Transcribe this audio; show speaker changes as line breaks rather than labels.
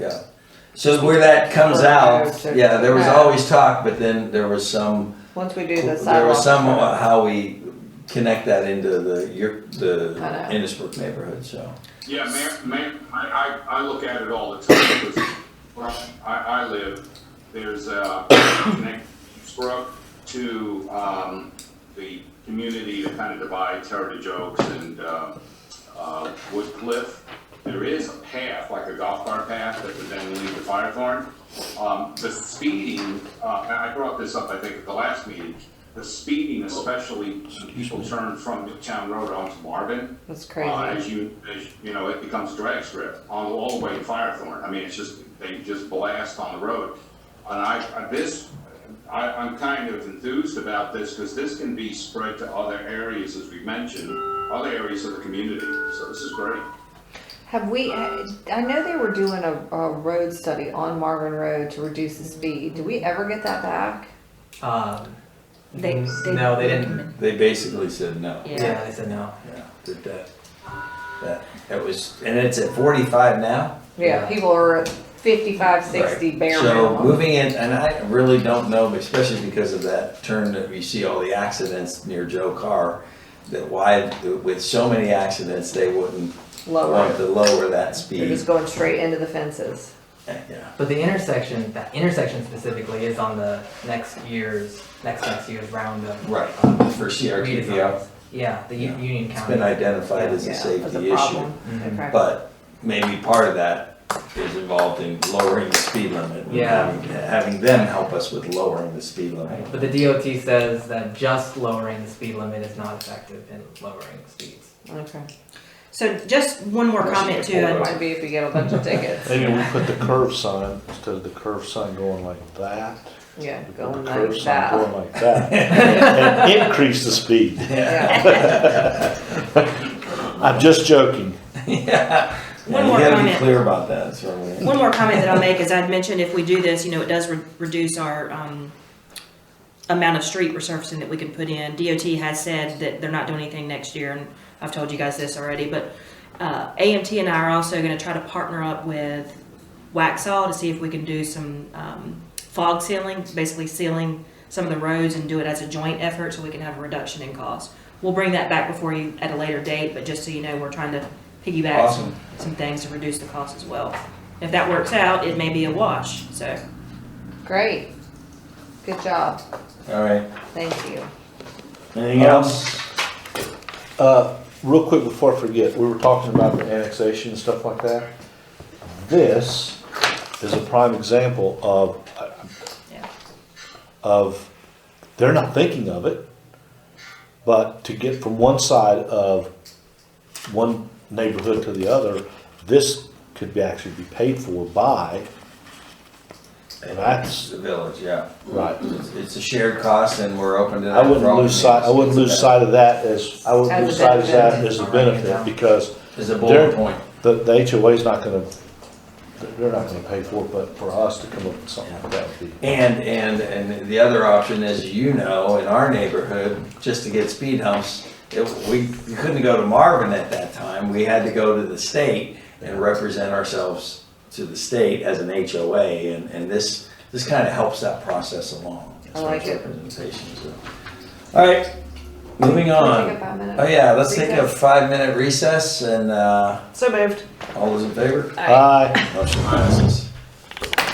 So where that comes
Or
out,
roads or-
yeah, there was
Yeah.
always talk, but then there was some,
Once we do the sidewalk.
there was some uh, how we connect that into the, your, the
I know.
Innisbrook neighborhood, so.
Yeah, ma- ma- I, I, I look at it all the time, because where I, I live, there's a connect Brook to, um, the community that kind of divides Heritage Oaks and, uh, uh, Wood Cliff. There is a path, like a golf cart path, that would then lead to Fire Thorn. Um, the speeding, uh, and I brought this up, I think, at the last meeting, the speeding especially, when people turn from Midtown Road onto Marvin.
That's
Uh,
crazy.
As you, as, you know, it becomes drag strip on all the way to Firethorn. I mean, it's just, they just blast on the road. And I, I- this, I, I'm kind of enthused about this because this can be spread to other areas, as we mentioned, other areas of the community. So this is great.
Have we, I know they were doing a, a road study on Marvin Road to reduce the speed. Do we ever get that back?
Um,
They-
mm,
they-
no, they didn't.
They basically said no.
Yeah.
Yeah, they said no.
Yeah, did that. That, that was, and it's at forty-five now?
Yeah,
Yeah.
people are at fifty-five, sixty
Right.
bare
So
minimum.
moving in, and I really don't know, especially because of that turn that we see all the accidents near Joe Carr, that why, with so many accidents, they wouldn't want
Lower.
to lower that
They're
speed.
just going straight into the fences.
Yeah,
But the intersection, that intersection specifically, is on the next year's next next year's round of
right,
um,
for CRTP,
redesigns. Yeah, the U-
Yeah.
Union
it's
County.
been identified as a
Yeah, that's
safety issue. Mm-hmm.
problem.
Mhm.
Okay.
But maybe part of that is involved in lowering the speed limit. and
Yeah.
having- Having them help us with lowering the speed limit.
Right, But the DOT says that just lowering the speed limit is not effective in lowering speeds.
Okay.
So just one more comment too.
It
and-
might be if we get a bunch of tickets.
Maybe we put the curve sign, instead of the curve sign going like that.
Yeah,
we put the
going
curve
like
sign
that.
Going like that. And increase the speed.
Yeah.
I'm just joking.
Yeah,
One
you
more
gotta be
comment.
clear about that, that's what I mean.
One more comment that I'll make is I'd mentioned if we do this, you know, it does re- reduce our um, amount of street resurfacing that we can put in. DOT has said that they're not doing anything next year, and I've told you guys this already, but uh, AMT and I are also going to try to partner up with Waxaw to see if we can do some um, fog sealing, basically sealing some of the roads and do it as a joint effort so we can have a reduction in cost. We'll bring that back before you at a later date, but just so you know, we're trying to piggyback
Awesome.
some things to reduce the cost as well. If that works out, it may be a wash, so.
Great. Good job.
All right,
Thank you.
anything
Um,
else?
Uh, real quick before I forget, we were talking about the annexation and stuff like that. This is a prime example of,
Yeah.
of, they're not thinking of it, but to get from one side of one neighborhood to the other, this could be actually be paid for by, and that's,
The village, yeah.
right.
It's it's a shared cost and we're open to that.
I
for
wouldn't
all
lose sight, I
communities.
wouldn't lose sight of that as, I wouldn't
As a
lose sight of that
benefit.
as a benefit, because
It's a bullet
There-
point.
the, the HOA's not gonna, they're not gonna pay for it, but for us to come up with something like that would be.
And, and, and the other option, as you know, in our neighborhood, just to get speed humps, it, we, we couldn't go to Marvin at that time. We had to go to the state and represent ourselves to the state as an HOA and, and this, this kind of helps that process along. as
I
far
like
as
it.
Representation, so. All right, moving
Can we take a
on.
five minute
Oh yeah, let's take a
recess?
five minute recess and, uh,
So moved.
all those in favor?
Aye.
Aye.
Motion passes.